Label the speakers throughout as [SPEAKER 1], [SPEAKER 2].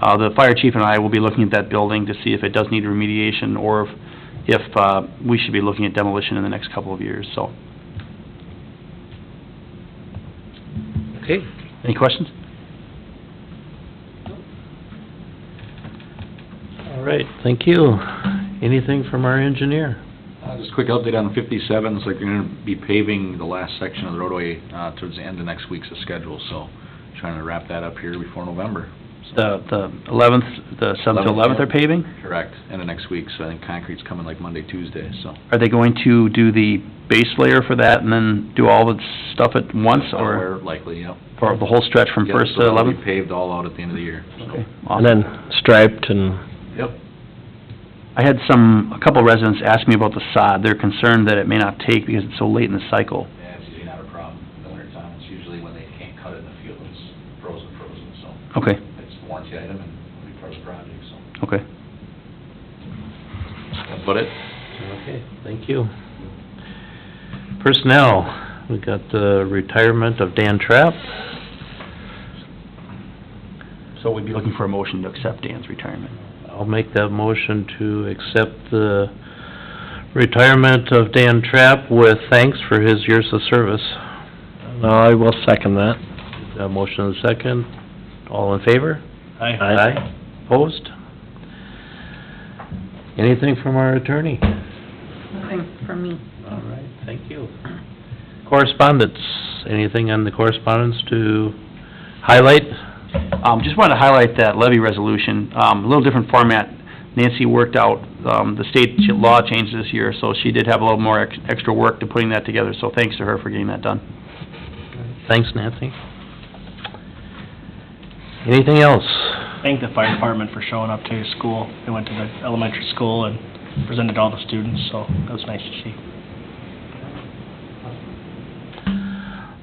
[SPEAKER 1] Uh, the fire chief and I will be looking at that building to see if it does need remediation or if, if, uh, we should be looking at demolition in the next couple of years, so.
[SPEAKER 2] Okay,
[SPEAKER 1] Any questions?
[SPEAKER 2] all right, thank you. Anything from our engineer?
[SPEAKER 3] Uh, Just a quick update on 57s, like, they're gonna be paving the last section of the roadway uh, towards the end of next week's schedule, so trying to wrap that up here before November.
[SPEAKER 1] The, the eleventh, the seventh to eleventh
[SPEAKER 3] Eleventh, yeah.
[SPEAKER 1] are paving?
[SPEAKER 3] Correct, end of next week, so I think concrete's coming like Monday, Tuesday, so.
[SPEAKER 1] Are they going to do the base layer for that and then do all the stuff at once or
[SPEAKER 3] Somewhere Likely, yep.
[SPEAKER 1] for the whole stretch from
[SPEAKER 3] Yep,
[SPEAKER 1] first
[SPEAKER 3] so
[SPEAKER 1] to
[SPEAKER 3] it'll be
[SPEAKER 1] eleventh?
[SPEAKER 3] Paved all out at the end of the year, so.
[SPEAKER 1] Okay,
[SPEAKER 2] And
[SPEAKER 1] awesome.
[SPEAKER 2] then striped and,
[SPEAKER 3] Yep.
[SPEAKER 1] I had some, a couple residents ask me about the sod. They're concerned that it may not take because it's so late in the cycle.
[SPEAKER 3] Yeah, it's usually not a problem in the wintertime, it's usually when they can't cut it in the field, it's frozen, frozen, so
[SPEAKER 1] Okay,
[SPEAKER 3] it's a warranty item and it'll be part of the project, so.
[SPEAKER 1] okay.
[SPEAKER 3] That's about it.
[SPEAKER 2] okay, thank you. Personnel, we got the retirement of Dan Trapp.
[SPEAKER 1] So we'd be looking for a motion to accept Dan's retirement.
[SPEAKER 2] I'll make that motion to accept the retirement of Dan Trapp with thanks for his years of service. Uh, I will second that. motion and second. All in favor? Aye. Aye. Opposed? Anything from our attorney?
[SPEAKER 4] Nothing from me.
[SPEAKER 2] All right, thank you. Correspondence, anything on the correspondence to highlight?
[SPEAKER 1] Um, just wanted to highlight that levy resolution, um, a little different format. Nancy worked out, um, the state ch- law changed this year, so she did have a little more ex- extra work to putting that together, so thanks to her for getting that done.
[SPEAKER 2] Thanks, Nancy. Anything else?
[SPEAKER 5] thank the fire department for showing up to school. They went to the elementary school and presented all the students, so that was nice to see.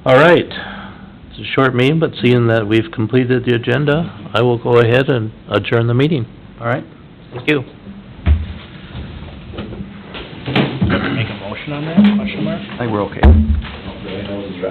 [SPEAKER 2] All right, it's a short meeting, but seeing that we've completed the agenda, I will go ahead and adjourn the meeting.
[SPEAKER 1] All right?
[SPEAKER 2] Thank you.
[SPEAKER 5] Make a motion on that, question mark?
[SPEAKER 1] I think we're okay.